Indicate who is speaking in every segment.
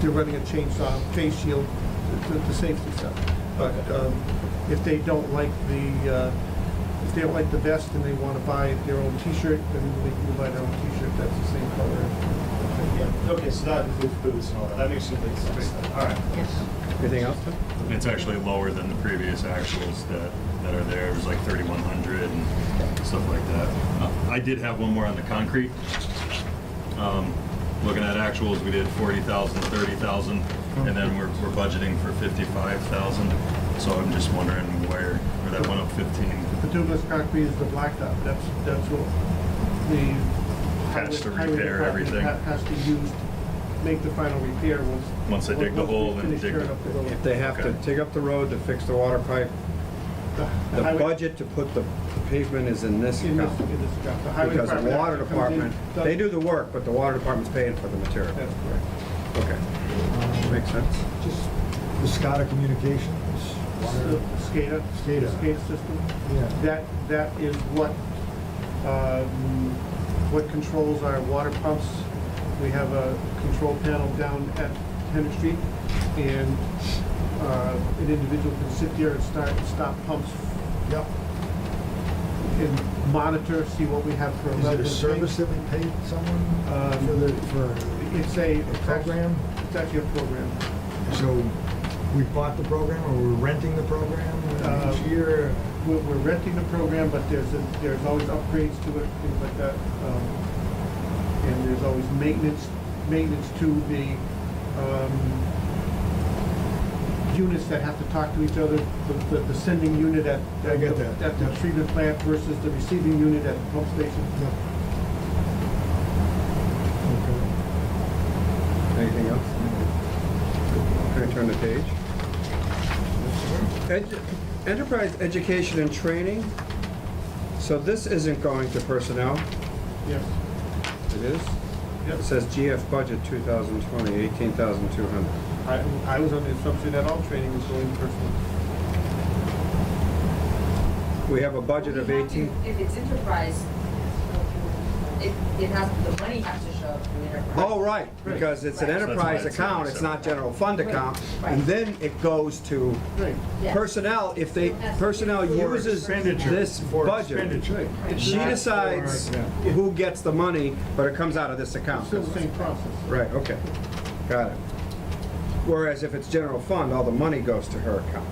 Speaker 1: they're running a chainsaw, face shield, the, the safety stuff. But, um, if they don't like the, uh, if they don't like the vest and they wanna buy their own T-shirt, then they can buy their own T-shirt that's the same color.
Speaker 2: Yeah, okay, so that includes boots and all that, that makes complete sense, then. all right.
Speaker 3: Anything else? Tim?
Speaker 4: It's actually lower than the previous actuals that, that are there. It was like 3,100 and stuff like that. Uh, I did have one more on the concrete. Um, Looking at actuals, we did 40,000, 30,000, and then we're, we're budgeting for 55,000. So I'm just wondering where, where that went up 15.
Speaker 1: The Douglas concrete is the blacktop, that's, that's what the.
Speaker 4: Has to
Speaker 1: highway- highway
Speaker 4: repair
Speaker 1: department
Speaker 4: everything.
Speaker 1: ha- Has to use, to make the final repair once.
Speaker 4: Once they dig the
Speaker 1: we
Speaker 4: hole and
Speaker 1: finish
Speaker 4: dig
Speaker 1: tearing
Speaker 4: the-
Speaker 1: up the road.
Speaker 3: If they have to
Speaker 4: Okay.
Speaker 3: dig up the road to fix the water pipe,
Speaker 1: The-
Speaker 3: the
Speaker 1: highway-
Speaker 3: budget to put the pavement is in this
Speaker 1: In this,
Speaker 3: account.
Speaker 1: in this job. The highway
Speaker 3: Because the
Speaker 1: department
Speaker 3: water
Speaker 1: actually comes in,
Speaker 3: department,
Speaker 1: does-
Speaker 3: they do the work, but the water department's paying for the material.
Speaker 1: That's correct.
Speaker 3: Okay. Makes sense.
Speaker 5: Just the SCADA communications.
Speaker 1: So, SCADA.
Speaker 5: SCADA.
Speaker 1: SCADA system.
Speaker 5: Yeah.
Speaker 1: That, that is what, um, what controls our water pumps. We have a control panel down at Henry Street, and uh, an individual can sit there and start, stop pumps
Speaker 5: Yep.
Speaker 1: and monitor, see what we have for a
Speaker 5: Is
Speaker 1: level.
Speaker 5: it a
Speaker 1: of
Speaker 5: service that we paid someone uh,
Speaker 1: Um,
Speaker 5: for the, for,
Speaker 1: It's a.
Speaker 5: A program?
Speaker 1: It's actually a program.
Speaker 5: so we bought the program or we're renting the program uh,
Speaker 1: Uh,
Speaker 5: each year?
Speaker 1: We're, we're renting the program, but there's, a- there's always upgrades to it, things like that. um, And there's always maintenance, maintenance to the, um, units that have to talk to each other. The, the- the sending unit at.
Speaker 5: I get that.
Speaker 1: At the treatment plant versus the receiving unit at the pump station.
Speaker 5: Yep. Okay.
Speaker 3: Anything else? Can I turn the page? Ed- Enterprise education and training. So this isn't going to personnel.
Speaker 1: Yes.
Speaker 3: It is? It says GF budget 2020, 18,200.
Speaker 1: I, I was under the assumption that all training was going personal.
Speaker 3: We have a budget of
Speaker 6: We have to-
Speaker 3: 18,
Speaker 6: If it's enterprise, it, it has, the money has to show up in enterprise.
Speaker 3: oh, right, because it's an
Speaker 6: Right.
Speaker 4: that's
Speaker 6: So
Speaker 3: enterprise
Speaker 4: why it's
Speaker 3: account,
Speaker 4: not
Speaker 3: it's not general fund account.
Speaker 6: Right.
Speaker 3: And then it goes to
Speaker 1: Right.
Speaker 6: Yes.
Speaker 3: personnel, if they, personnel
Speaker 6: For
Speaker 3: uses
Speaker 2: expenditure.
Speaker 3: this
Speaker 2: For
Speaker 3: budget.
Speaker 2: expenditure.
Speaker 3: She
Speaker 5: Not for-
Speaker 3: decides
Speaker 5: yeah.
Speaker 3: who gets the money, but it comes out of this account.
Speaker 1: Still the same process.
Speaker 3: Right, okay, got it. Whereas if it's general fund, all the money goes to her account.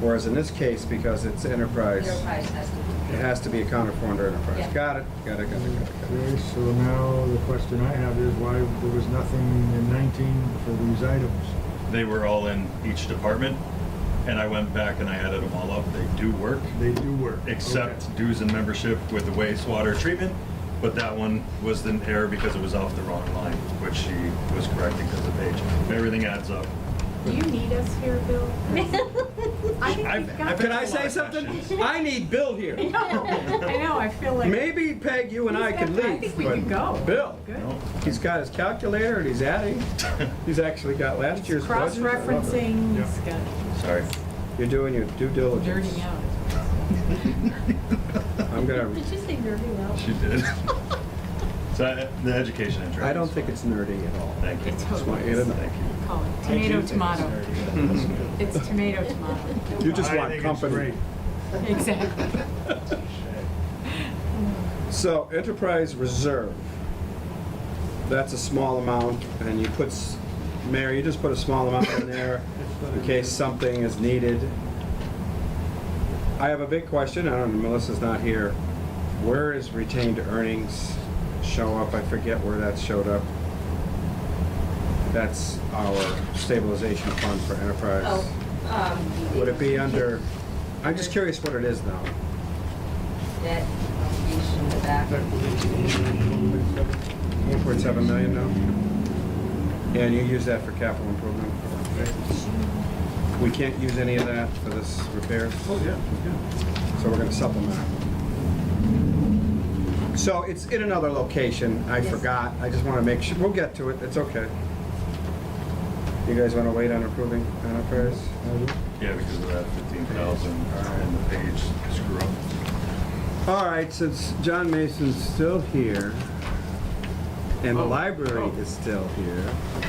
Speaker 3: Whereas in this case, because it's enterprise,
Speaker 6: Enterprise has to be.
Speaker 3: it has to be accounted for under enterprise.
Speaker 6: Yeah.
Speaker 3: Got it, got it, got it, got it, got it.
Speaker 5: Okay, so now the question I have is why there was nothing in 19 for these items?
Speaker 4: They were all in each department, and I went back and I added them all up. They do work.
Speaker 5: They do work. Okay.
Speaker 4: except dues and membership with the wastewater treatment, but that one was an error because it was off the wrong line, which she was correcting because of age. Everything adds up.
Speaker 7: Do you need us here, Bill? I think
Speaker 4: I've-
Speaker 7: we've
Speaker 4: I've
Speaker 7: got.
Speaker 4: been-
Speaker 3: Can I say something? I need Bill here.
Speaker 7: I know, I feel like.
Speaker 3: Maybe Peg, you and I
Speaker 7: He's
Speaker 3: could
Speaker 7: got- I
Speaker 3: leave.
Speaker 7: think we could
Speaker 3: but
Speaker 7: go.
Speaker 3: Bill,
Speaker 7: Good.
Speaker 3: he's got his calculator and he's adding. He's actually got last year's budget. I love it.
Speaker 7: Cross-referencing,
Speaker 5: Yeah.
Speaker 7: it's got
Speaker 4: Sorry.
Speaker 3: You're doing your due diligence.
Speaker 7: dirty out.
Speaker 3: I'm gonna,
Speaker 7: you say dirty out?
Speaker 4: She did. So I- the education interest.
Speaker 3: I don't think it's nerdy at all.
Speaker 4: Thank you.
Speaker 7: It's
Speaker 3: Just want you to
Speaker 7: totally,
Speaker 3: know.
Speaker 4: Thank you.
Speaker 7: call it
Speaker 2: I do
Speaker 7: tomato,
Speaker 2: think it's
Speaker 7: tomato.
Speaker 2: nerdy, that's good.
Speaker 7: It's tomato, tomato.
Speaker 3: You just
Speaker 2: I
Speaker 3: want
Speaker 2: think it's
Speaker 3: company.
Speaker 2: great.
Speaker 7: Exactly.
Speaker 3: So enterprise reserve. That's a small amount and you put, s- Mayor, you just put a small amount in there in case something is needed. I have a big question, I don't know, Melissa's not here. Where is retained earnings show up? I forget where that showed up. That's our stabilization fund for enterprise.
Speaker 6: Oh, um.
Speaker 3: Would it be under, I'm just curious what it is now.
Speaker 6: That, you should have that.
Speaker 3: One point seven million now? Yeah, and you use that for capital improvement? We can't use any of that for this repair,
Speaker 1: Oh, yeah, yeah.
Speaker 3: so we're gonna supplement it. So it's in another location, I
Speaker 6: Yes.
Speaker 3: forgot, I just wanna make sure, we'll get to it, it's okay. You guys wanna wait on approving enterprise?
Speaker 4: Yeah, because of that fifteen thousand uh, and the page screw up.
Speaker 3: All right, since John
Speaker 1: Oh.
Speaker 3: Mason's still here, and the library is still here,